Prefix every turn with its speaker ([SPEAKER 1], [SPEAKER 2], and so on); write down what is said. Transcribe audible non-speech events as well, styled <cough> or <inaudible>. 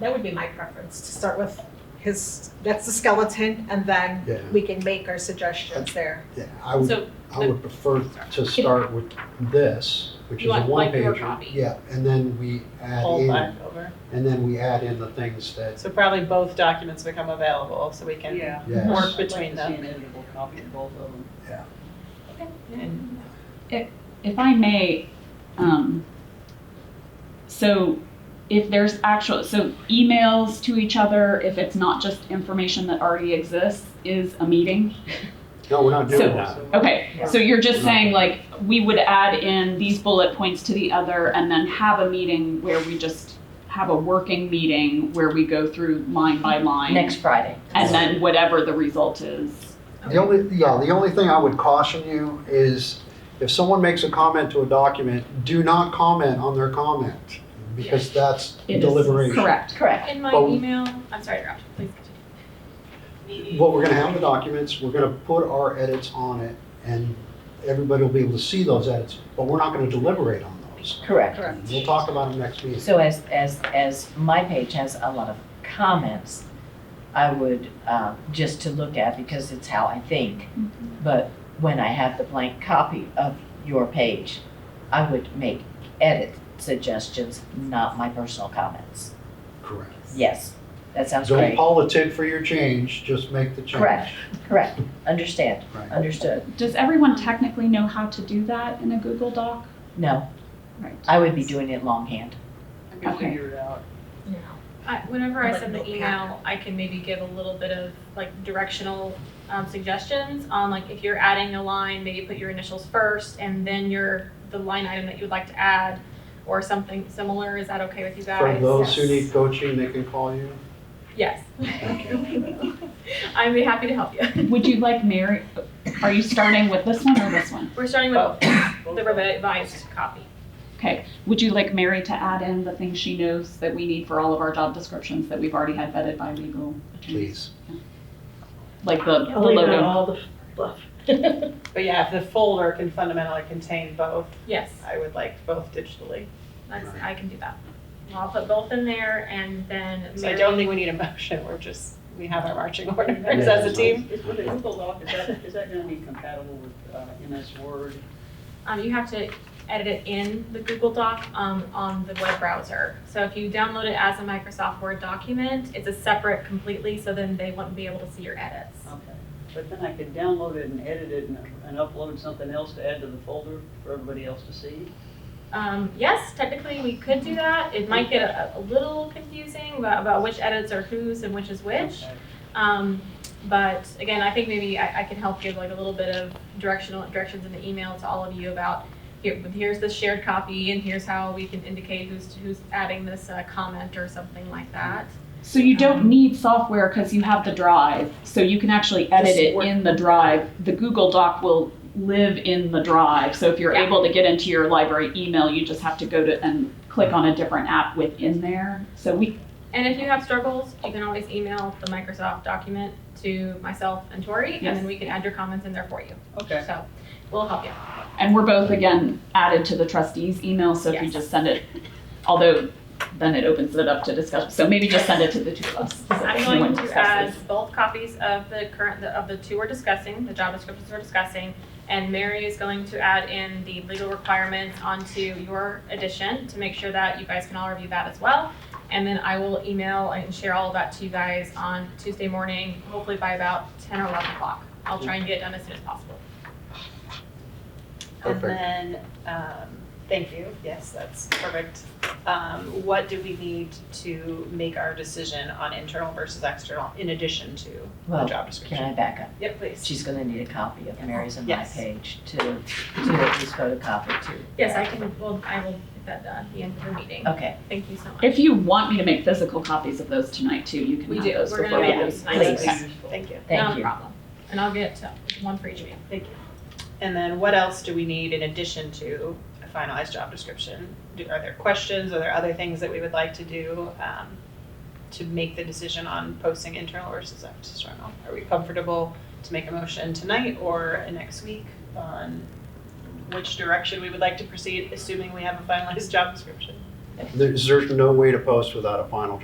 [SPEAKER 1] that would be my preference, to start with his, that's the skeleton, and then
[SPEAKER 2] Yeah,
[SPEAKER 1] we can make our suggestions there.
[SPEAKER 2] yeah, I would,
[SPEAKER 3] So,
[SPEAKER 2] I would prefer to start with this, which is
[SPEAKER 3] You
[SPEAKER 2] a
[SPEAKER 3] want, like,
[SPEAKER 2] one
[SPEAKER 3] your
[SPEAKER 2] pager.
[SPEAKER 3] copy.
[SPEAKER 2] Yeah, and then we add
[SPEAKER 4] Pull
[SPEAKER 2] in,
[SPEAKER 4] back over.
[SPEAKER 2] and then we add in the things that,
[SPEAKER 4] So probably both documents become available, so we can
[SPEAKER 5] Yeah.
[SPEAKER 4] work
[SPEAKER 5] I'd
[SPEAKER 2] yes,
[SPEAKER 4] between
[SPEAKER 5] like to see
[SPEAKER 4] them.
[SPEAKER 5] an editable copy of both of them.
[SPEAKER 4] And
[SPEAKER 6] If I may, um, so if there's actual, so emails to each other, if it's not just information that already exists, is a meeting.
[SPEAKER 2] no, we're not
[SPEAKER 6] So-
[SPEAKER 2] doing that.
[SPEAKER 6] Okay, so you're just
[SPEAKER 2] Yeah.
[SPEAKER 6] saying like, we would add in these bullet points to the other and then have a meeting where we just have a working meeting where we go through line by line.
[SPEAKER 7] next Friday.
[SPEAKER 6] And then whatever the result is.
[SPEAKER 2] The only, yeah, the only thing I would caution you is if someone makes a comment to a document, do not comment on their comment, because that's
[SPEAKER 6] it is
[SPEAKER 2] deliberation.
[SPEAKER 6] Correct.
[SPEAKER 7] Correct.
[SPEAKER 3] In my
[SPEAKER 2] But-
[SPEAKER 3] email, I'm sorry, to interrupt. Please continue.
[SPEAKER 2] What we're gonna have in the documents, we're gonna put our edits on it, and everybody will be able to see those edits, but we're not gonna deliberate on those.
[SPEAKER 7] Correct.
[SPEAKER 1] Correct.
[SPEAKER 2] We'll talk about them next meeting.
[SPEAKER 7] So as, as, as my page has a lot of comments, I would, uh, just to look at because it's how I think.
[SPEAKER 5] Mm-hmm.
[SPEAKER 7] But when I have the blank copy of your page, I would make edit suggestions, not my personal comments.
[SPEAKER 2] Correct.
[SPEAKER 7] Yes, that sounds
[SPEAKER 2] Don't
[SPEAKER 7] great.
[SPEAKER 2] politic for your change, just make the change.
[SPEAKER 7] Correct. Correct. Understand.
[SPEAKER 2] Right.
[SPEAKER 7] Understood.
[SPEAKER 6] Does everyone technically know how to do that in a Google Doc?
[SPEAKER 7] No,
[SPEAKER 6] Right.
[SPEAKER 7] I would be doing it longhand.
[SPEAKER 4] I can
[SPEAKER 6] Okay.
[SPEAKER 4] figure it out.
[SPEAKER 1] Yeah.
[SPEAKER 3] I, Uh, whenever I
[SPEAKER 1] Like
[SPEAKER 3] send the
[SPEAKER 1] notepad.
[SPEAKER 3] email, I can maybe give a little bit of like directional um, suggestions on like if you're adding a line, maybe put your initials first and then your the line item that you would like to add or something similar. Is that okay with you guys?
[SPEAKER 2] For those who
[SPEAKER 3] Yes.
[SPEAKER 2] need coaching, they can call you.
[SPEAKER 3] Yes. <laughs> I'd be happy to help you. <laughs>
[SPEAKER 6] Would you like Mary? Are you starting with this one or this one?
[SPEAKER 3] We're starting with the revised copy.
[SPEAKER 6] Okay. Would you like Mary to add in the things she knows that we need for all of our job descriptions that we've already had vetted by legal? attorneys?
[SPEAKER 2] Please.
[SPEAKER 6] Like the, the
[SPEAKER 5] I'll leave out
[SPEAKER 6] logo.
[SPEAKER 5] all the fluff.
[SPEAKER 4] But yeah, if the folder can fundamentally contain both,
[SPEAKER 3] Yes,
[SPEAKER 4] I would like both digitally.
[SPEAKER 3] that's, I can do that. I'll put both in there and then
[SPEAKER 4] So I
[SPEAKER 3] Mary-
[SPEAKER 4] don't think we need a motion, we're just, we have our marching orders
[SPEAKER 2] Yeah.
[SPEAKER 4] as a team.
[SPEAKER 5] Is with the Google Doc, is that, is that gonna be compatible with uh, MS Word?
[SPEAKER 3] Um, you have to edit it in the Google Doc um, on the web browser. So if you download it as a Microsoft Word document, it's a separate completely, so then they wouldn't be able to see your edits.
[SPEAKER 5] Okay. But then I could download it and edit it and and upload something else to add to the folder for everybody else to see?
[SPEAKER 3] Um, yes, technically we could do that. It might get a, a little confusing about, about which edits are whose and which is which.
[SPEAKER 5] Okay.
[SPEAKER 3] Um, but again, I think maybe I, I can help give like a little bit of directional directions in the email to all of you about here, here's the shared copy and here's how we can indicate who's who's adding this uh, comment or something like that.
[SPEAKER 6] So you don't need software because you have the drive. So you can actually edit
[SPEAKER 4] Just
[SPEAKER 6] it
[SPEAKER 4] work-
[SPEAKER 6] in the drive. The Google Doc will live in the drive. So if you're
[SPEAKER 3] Yeah.
[SPEAKER 6] able to get into your library email, you just have to go to and click on a different app within there. So we
[SPEAKER 3] And if you have struggles, you can always email the Microsoft document to myself and Tori, and
[SPEAKER 6] Yes.
[SPEAKER 3] then we can add your comments in there for you.
[SPEAKER 5] Okay.
[SPEAKER 3] So we'll help you.
[SPEAKER 6] And we're both again added to the trustees email, so if you
[SPEAKER 3] Yes.
[SPEAKER 6] just send it, although then it opens it up to discussion, so maybe just send it to the two of us. so
[SPEAKER 3] I'm
[SPEAKER 6] that no
[SPEAKER 3] going
[SPEAKER 6] one
[SPEAKER 3] to
[SPEAKER 6] discusses.
[SPEAKER 3] add both copies of the current, of the two we're discussing, the job descriptions we're discussing, and Mary is going to add in the legal requirements onto your edition to make sure that you guys can all review that as well. And then I will email and share all of that to you guys on Tuesday morning, hopefully by about ten or eleven o'clock. I'll try and get it done as soon as possible.
[SPEAKER 4] And
[SPEAKER 2] Perfect.
[SPEAKER 4] then, um, thank you, yes, that's perfect. Um, what do we need to make our decision on internal versus external in addition to the job
[SPEAKER 7] Well, Can I
[SPEAKER 4] description?
[SPEAKER 7] back up?
[SPEAKER 4] Yep, please.
[SPEAKER 7] She's gonna need a copy of Mary's and my
[SPEAKER 4] Yes.
[SPEAKER 7] page to, to at least photocopy to.
[SPEAKER 3] Yes, I can, well, I will get that done at the end of the meeting.
[SPEAKER 7] Okay,
[SPEAKER 3] Thank you so much.
[SPEAKER 6] If you want me to make physical copies of those tonight too, you can
[SPEAKER 3] We
[SPEAKER 6] have
[SPEAKER 3] do.
[SPEAKER 6] those
[SPEAKER 3] We're
[SPEAKER 6] before
[SPEAKER 3] gonna
[SPEAKER 6] we
[SPEAKER 3] make
[SPEAKER 6] leave.
[SPEAKER 3] those
[SPEAKER 5] That
[SPEAKER 3] nice
[SPEAKER 5] would be
[SPEAKER 6] Please.
[SPEAKER 5] useful.
[SPEAKER 4] Thank you,
[SPEAKER 3] Not
[SPEAKER 7] thank
[SPEAKER 3] a
[SPEAKER 7] you.
[SPEAKER 3] problem. And I'll get uh, one for each of you.
[SPEAKER 4] thank you. And then what else do we need in addition to a finalized job description? Do, are there questions, are there other things that we would like to do, um, to make the decision on posting internal versus external? Are we comfortable to make a motion tonight or next week on which direction we would like to proceed, assuming we have a finalized <laughs> job description?
[SPEAKER 2] There's, there's no way to post without a final